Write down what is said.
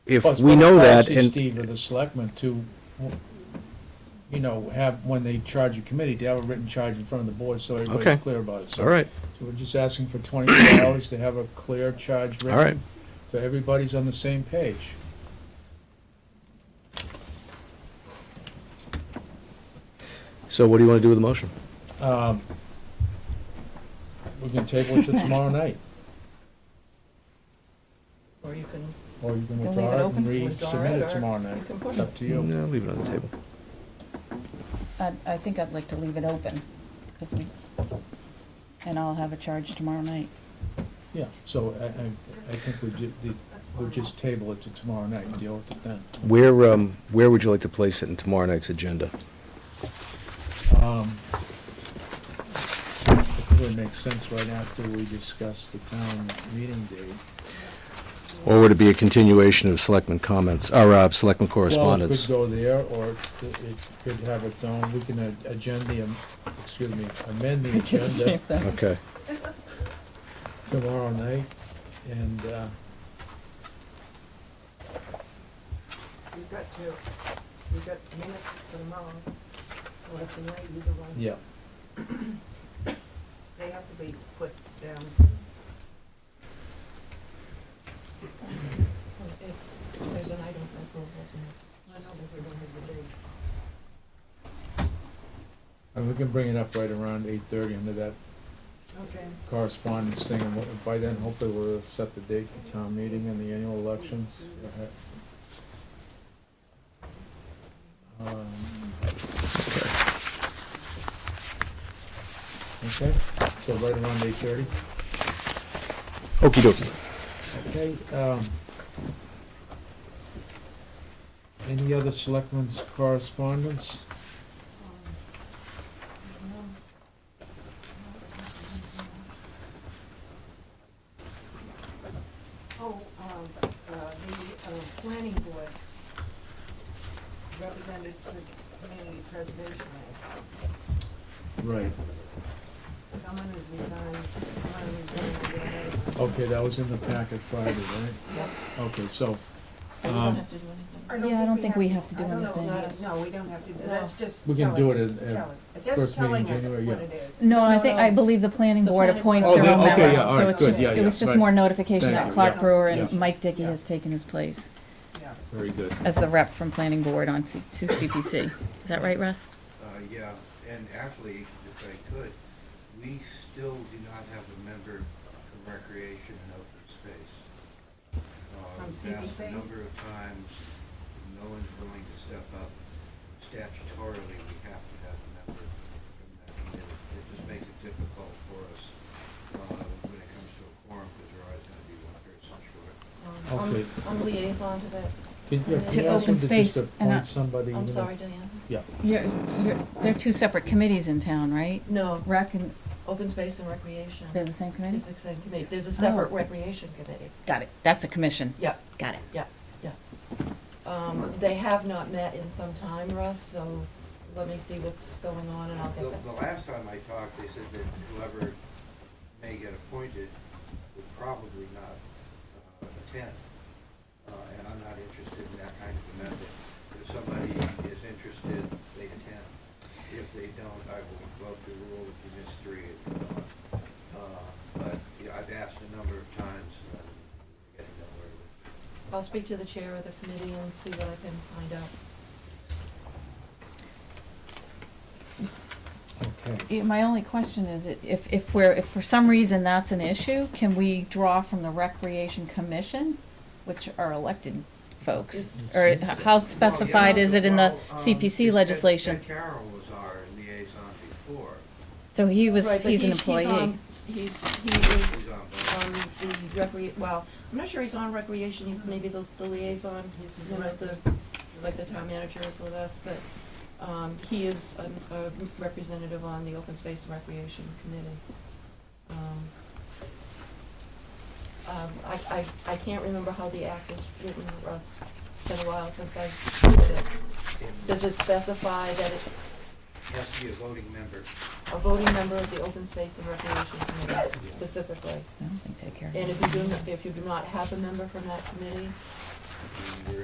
if Well, it's we probably know that, policy, and, Steve, of the selectmen to, you know, have, when they charge a committee, to have a written charge in front of the board, so Okay. everybody's clear about it. So- all right, So we're just asking for twenty-four hours to have a clear charge all right. written, so everybody's on the same page. So what do you want to do with the motion? Um, We can table it to tomorrow night, Or you can, or you can Then leave withdraw it it open, and withdraw resubmit it, it or tomorrow you night. can push It's it. up to you. No, leave it on the table. I, I think I'd like to leave it open, because we, and I'll have a charge tomorrow night. Yeah, so I, I, I think we ju, the- we'll just table it to tomorrow night and deal with it then. Where, um, where would you like to place it in tomorrow night's agenda? Um, It would make sense right after we discuss the town meeting date. Or would it be a continuation of selectmen comments, or, uh, selectmen correspondence? Well, it could go there, or it it could have its own, we can a- agenda, the am- excuse me, amend the I did the same agenda thing. Okay, tomorrow night, and, uh, you've got to, you've got minutes for tomorrow, or tonight, either one. yeah. They have to be put down. If there's an item for approval, then it's- if we don't have the date. And we can bring it up right around eight-thirty under that Okay. correspondence thing, and what- by then, hopefully, we'll have set the date for town meeting and the annual elections. Um, Okay, so right around eight-thirty? okey dokey. Okay, um, any other selectmen's correspondence? Oh, um, uh, the, uh, planning board represented the community preservation act. Right. Someone has resigned, someone resigned. they're ready. Okay, that was in the packet Friday, right? Yep. Okay, so, We don't um, have to do anything. I Yeah, I don't think we have to do I don't know, anything. it's not- No, we don't have to, do that's just. We can telling- do it in- in telling- first meeting in That's January, telling us what yeah. it is. No, I think, I No, believe the planning The board planning appoints board. their Oh, own they- okay, member, yeah, all so right, it's good, just, yeah, it yeah, was just right. more notification Thank that you, Clark yeah. Brewer and Yeah. Mike Dickey Yeah. has taken his place yeah. very good. as the rep from planning board on C- to CPC. Is that right, Russ? Uh, yeah, and actually, if I could, we still do not have a member from recreation and open space. Uh, From we've asked CPC? A number of times, no one's willing to step up. Statutorily, we have to have a member from that committee. It just makes it difficult for us, uh, when it comes to a quorum, because there always gonna be one person short. Um, Okay. I'm, I'm liaison to that, Can you- To can you ask open them to space just and appoint I- somebody? I'm to- sorry, Diane. Yeah, You're, you're, they're two separate committees in town, right? No, Rec and, open space and recreation they're the same committee? is the same committee. There's a separate Oh. recreation committee. Got it, that's a commission. Yeah, Got it. yeah, yeah. Um, they have not met in some time, Russ, so let me see what's going on and I'll The, get the that. last time I talked, they said that whoever may get appointed would probably not uh, attend. Uh, And I'm not interested in that kind of a method. If somebody is interested, they attend. If they don't, I will invoke the rule if you miss three. if you don't. Uh, But, you know, I've asked a number of times, and I'm getting nowhere with it. I'll speak to the chair of the committee and see what I can find out. okay. Yeah, My only question is, i- if, if we're, if for some reason that's an issue, can we draw from the Recreation Commission, which are elected folks? It's- Or h- how specified is it in the Well, yeah, well, um, CPC Ted- legislation? Ted Carroll was our liaison before. So he Right, was, but he's an he's employee. on- He's, he is um, He's on on both. the recre, well, I'm not sure he's on recreation, he's maybe the, the liaison, he's, you know, the, like the town manager is with us, but, um, he is a, a representative on the open space and recreation committee. Um, Um, I, I, I can't remember how the act is written, Russ, it's been a while since I did it. And Does it specify that it, Has to be a voting member. a voting member of the open space and recreation committee specifically? I don't think Ted Carroll- And if you do, if you do not have a member from that committee,